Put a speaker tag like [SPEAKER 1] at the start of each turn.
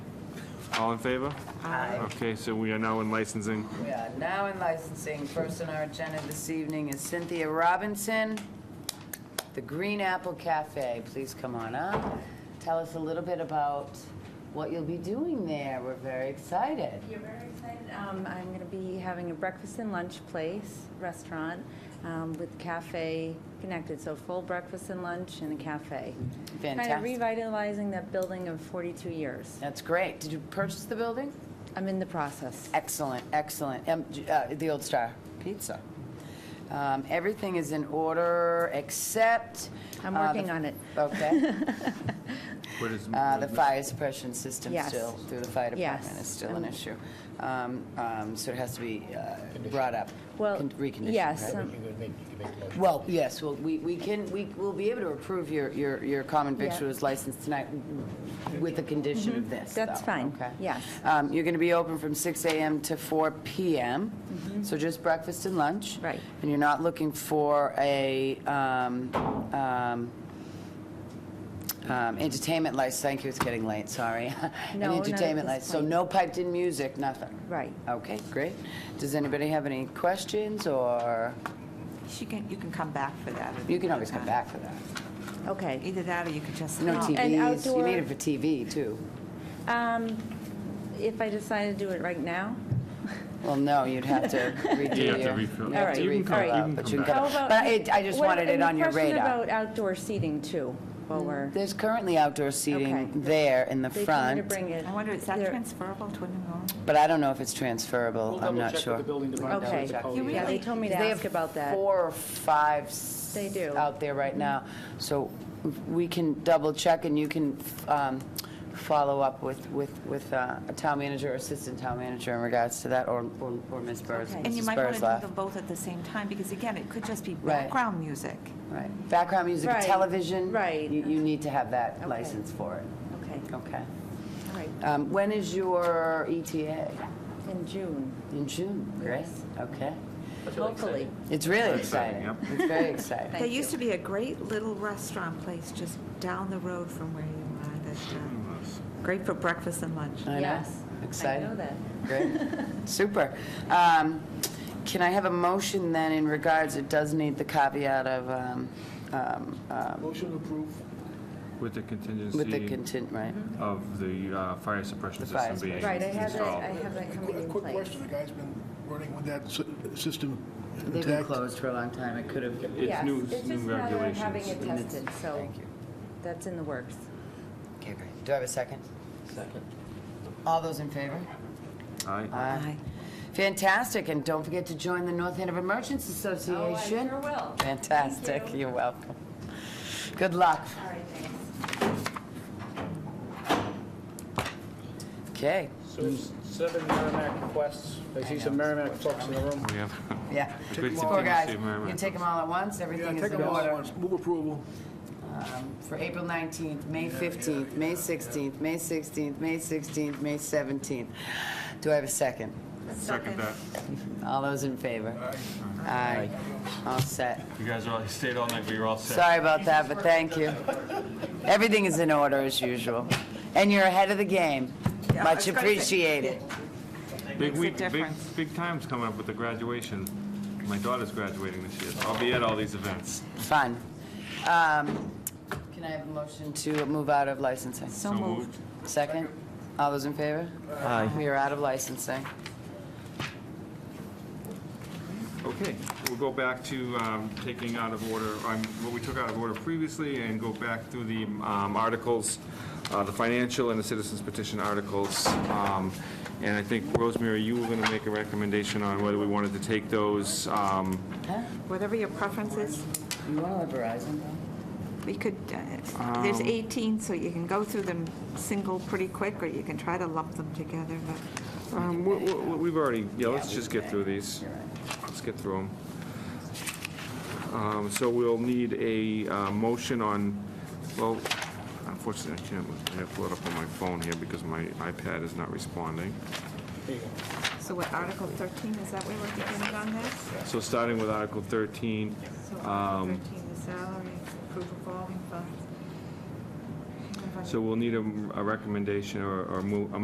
[SPEAKER 1] All in favor?
[SPEAKER 2] Aye.
[SPEAKER 1] Okay, so we are now in licensing.
[SPEAKER 2] We are now in licensing. First on our agenda this evening is Cynthia Robinson, the Green Apple Cafe. Please come on up. Tell us a little bit about what you'll be doing there. We're very excited.
[SPEAKER 3] You're very excited. Um, I'm going to be having a breakfast and lunch place, restaurant, um, with cafe connected. So full breakfast and lunch and a cafe. Kind
[SPEAKER 2] Fantastic.
[SPEAKER 3] of revitalizing that building of 42 years.
[SPEAKER 2] That's great. Did you purchase the building?
[SPEAKER 3] I'm in the process.
[SPEAKER 2] Excellent, excellent. Um, j- uh, The Old Star Pizza. Um, Everything is in order except...
[SPEAKER 3] I'm
[SPEAKER 2] uh, the-
[SPEAKER 3] working on it.
[SPEAKER 2] Okay.
[SPEAKER 1] What is-
[SPEAKER 2] Uh, The fire suppression system
[SPEAKER 3] Yes.
[SPEAKER 2] still, through the fire department,
[SPEAKER 3] Yes.
[SPEAKER 2] is still an
[SPEAKER 3] Um,
[SPEAKER 2] issue. Um, um, So it has to be uh, brought up,
[SPEAKER 3] Well,
[SPEAKER 2] con- reconditioned,
[SPEAKER 3] yes,
[SPEAKER 2] right?
[SPEAKER 3] um,
[SPEAKER 4] You can make, you can make the motion.
[SPEAKER 2] Well, yes, well, we we can, we will be able to approve your your your common
[SPEAKER 3] Yeah. Mm-hmm.
[SPEAKER 2] victuals license tonight with the condition of this,
[SPEAKER 3] That's
[SPEAKER 2] though,
[SPEAKER 3] fine,
[SPEAKER 2] okay?
[SPEAKER 3] yes.
[SPEAKER 2] Um, You're going to be open from 6 a.m. to 4 p.m., so just breakfast and lunch.
[SPEAKER 3] Mm-hmm. Right.
[SPEAKER 2] And you're not looking for a um, um, um, entertainment license, thank you, it's getting late, sorry. An
[SPEAKER 3] No, not at
[SPEAKER 2] entertainment
[SPEAKER 3] this
[SPEAKER 2] license, so
[SPEAKER 3] point.
[SPEAKER 2] no piped-in music, nothing?
[SPEAKER 3] Right.
[SPEAKER 2] Okay, great. Does anybody have any questions, or,
[SPEAKER 5] She can, you can come back for that. at
[SPEAKER 2] you can
[SPEAKER 5] another
[SPEAKER 2] always come
[SPEAKER 5] time.
[SPEAKER 2] back for that.
[SPEAKER 3] Okay.
[SPEAKER 5] Either that or you could just.
[SPEAKER 2] No
[SPEAKER 3] Oh, and
[SPEAKER 2] TVs, you need
[SPEAKER 3] outdoor-
[SPEAKER 2] it for TV, too.
[SPEAKER 3] Um, If I decide to do it right now?
[SPEAKER 2] Well, no, you'd have to redo
[SPEAKER 1] You
[SPEAKER 2] your...
[SPEAKER 1] have to refill.
[SPEAKER 2] you'd
[SPEAKER 3] All
[SPEAKER 2] have
[SPEAKER 3] right,
[SPEAKER 2] to
[SPEAKER 3] you can
[SPEAKER 2] refill
[SPEAKER 3] come- you
[SPEAKER 2] out,
[SPEAKER 1] can
[SPEAKER 2] but
[SPEAKER 1] come
[SPEAKER 2] you can
[SPEAKER 1] back.
[SPEAKER 2] come-
[SPEAKER 3] How about-
[SPEAKER 2] But I I just
[SPEAKER 3] What-
[SPEAKER 2] wanted it
[SPEAKER 3] and
[SPEAKER 2] on your
[SPEAKER 3] Question
[SPEAKER 2] radar.
[SPEAKER 3] about outdoor seating, too, while we're,
[SPEAKER 2] There's currently outdoor
[SPEAKER 3] Okay.
[SPEAKER 2] seating there in the
[SPEAKER 3] they told me to
[SPEAKER 2] front,
[SPEAKER 3] bring it.
[SPEAKER 5] I wonder, is that
[SPEAKER 3] They're-
[SPEAKER 5] transferable to a new home?
[SPEAKER 2] but I don't know if it's transferable,
[SPEAKER 4] We'll
[SPEAKER 2] I'm not
[SPEAKER 4] double-check with
[SPEAKER 2] sure.
[SPEAKER 4] the building department.
[SPEAKER 3] Okay.
[SPEAKER 4] see what the code
[SPEAKER 5] You
[SPEAKER 4] is.
[SPEAKER 3] Yeah, they
[SPEAKER 5] Really?
[SPEAKER 3] told me to
[SPEAKER 2] They
[SPEAKER 3] ask
[SPEAKER 2] have
[SPEAKER 3] about that.
[SPEAKER 2] Four or five s-
[SPEAKER 3] They do. Mm-hmm.
[SPEAKER 2] out there right now, so we can double-check, and you can um, follow up with with with uh, a town manager or assistant town manager in regards to that, or or or Ms. Burrs.
[SPEAKER 3] Okay.
[SPEAKER 5] And you
[SPEAKER 2] Mrs.
[SPEAKER 5] might want to
[SPEAKER 2] Burrs
[SPEAKER 5] do
[SPEAKER 2] left.
[SPEAKER 5] them both at the same time, because again, it could just be
[SPEAKER 2] Right.
[SPEAKER 5] background music.
[SPEAKER 2] Right, background music,
[SPEAKER 3] Right,
[SPEAKER 2] television.
[SPEAKER 3] right.
[SPEAKER 2] You, you need to have that
[SPEAKER 3] Okay.
[SPEAKER 2] license for it.
[SPEAKER 3] Okay,
[SPEAKER 2] Okay.
[SPEAKER 3] all right,
[SPEAKER 2] Um, when is your ETA?
[SPEAKER 3] in June.
[SPEAKER 2] In June, right?
[SPEAKER 3] Yes.
[SPEAKER 2] Okay.
[SPEAKER 3] Hopefully.
[SPEAKER 2] It's really
[SPEAKER 1] exciting,
[SPEAKER 2] exciting. It's very exciting.
[SPEAKER 5] There
[SPEAKER 3] you.
[SPEAKER 5] used to be a great little restaurant place just down the road from where you are that, uh, great for breakfast and lunch.
[SPEAKER 2] I know.
[SPEAKER 3] Yes.
[SPEAKER 2] Exciting.
[SPEAKER 3] I know that.
[SPEAKER 2] Great. Super. Um, can I have a motion then in regards, it does need the caveat of, um, um, um,
[SPEAKER 4] Motion approved.
[SPEAKER 1] With the
[SPEAKER 2] with the
[SPEAKER 1] contingency
[SPEAKER 2] content, right?
[SPEAKER 1] of the uh, fire suppression
[SPEAKER 2] The fire
[SPEAKER 1] system being
[SPEAKER 3] Right, I have that, I
[SPEAKER 1] installed.
[SPEAKER 3] have that coming
[SPEAKER 4] Quick
[SPEAKER 3] in
[SPEAKER 4] quick
[SPEAKER 3] place.
[SPEAKER 4] question, the guy's been running with that sy- system
[SPEAKER 2] They've been
[SPEAKER 4] intact?
[SPEAKER 2] closed for a long time. It could have.
[SPEAKER 1] It's
[SPEAKER 3] Yes,
[SPEAKER 1] new,
[SPEAKER 3] it's
[SPEAKER 1] new
[SPEAKER 3] just a matter of having
[SPEAKER 1] regulations.
[SPEAKER 3] it tested, so
[SPEAKER 2] Thank you.
[SPEAKER 3] that's in the works.
[SPEAKER 2] Okay, great. Do I have a second? Second. All those in favor?
[SPEAKER 1] All right.
[SPEAKER 2] Aye. Fantastic, and don't forget to join the North Andover Merchants Association.
[SPEAKER 3] Oh, I sure will.
[SPEAKER 2] Fantastic,
[SPEAKER 3] Thank you.
[SPEAKER 2] you're welcome. Good luck.
[SPEAKER 3] All right, thanks.
[SPEAKER 2] Okay,
[SPEAKER 4] So there's seven Merrimack requests. I see some Merrimack folks in the room.
[SPEAKER 1] We have,
[SPEAKER 2] yeah.
[SPEAKER 1] Take them all.
[SPEAKER 2] Poor guys,
[SPEAKER 1] Save
[SPEAKER 2] you
[SPEAKER 1] my
[SPEAKER 2] can
[SPEAKER 1] mind.
[SPEAKER 2] take them all at once,
[SPEAKER 4] Yeah,
[SPEAKER 2] everything is
[SPEAKER 4] take
[SPEAKER 2] in
[SPEAKER 4] them all at
[SPEAKER 2] order.
[SPEAKER 4] once. Move approval.
[SPEAKER 2] Um, For April 19th, May 15th, May 16th, May 16th, May 16th, May 17th. Do I have a second?
[SPEAKER 1] second that.
[SPEAKER 2] All those in favor? Aye. All set.
[SPEAKER 1] You guys all stayed all night, we were all set.
[SPEAKER 2] Sorry about that, but thank you. Everything is in order as usual. And you're ahead of the game.
[SPEAKER 5] Yeah, I was
[SPEAKER 2] Much
[SPEAKER 5] gonna say.
[SPEAKER 2] appreciated.
[SPEAKER 1] Big
[SPEAKER 5] a
[SPEAKER 1] week, big,
[SPEAKER 5] difference.
[SPEAKER 1] big times coming up with the graduation. My daughter's graduating this year. I'll be at all these events.
[SPEAKER 2] Fun. Um, Can I have a motion to move out of licensing?
[SPEAKER 5] So moved.
[SPEAKER 2] Second? All those in favor? Aye. We are out of licensing.
[SPEAKER 1] Okay, we'll go back to um, taking out of order, um, what we took out of order previously, and go back through the um, articles, uh, the financial and the citizens petition articles. Um, And I think, Rosemary, you were going to make a recommendation on whether we wanted to take those. um,
[SPEAKER 5] Whatever your preference is,
[SPEAKER 2] You want to let Verizon
[SPEAKER 5] we could, uh,
[SPEAKER 2] Um,
[SPEAKER 5] there's 18, so you can go through them single pretty quick, or you can try to lump them together, but.
[SPEAKER 1] um, we- we- We've already, yeah, let's just get through these.
[SPEAKER 2] You're right.
[SPEAKER 1] Let's get through them. So we'll need a uh, motion on, well, unfortunately, I can't, I have to pull it up on my phone here because my iPad is not responding.
[SPEAKER 5] So what, Article 13, is that where we're beginning on this?
[SPEAKER 1] So starting with Article 13,
[SPEAKER 5] So Article
[SPEAKER 1] um,
[SPEAKER 5] 13, the salary, approve revolving funds.
[SPEAKER 1] so we'll need a a recommendation or or mo- a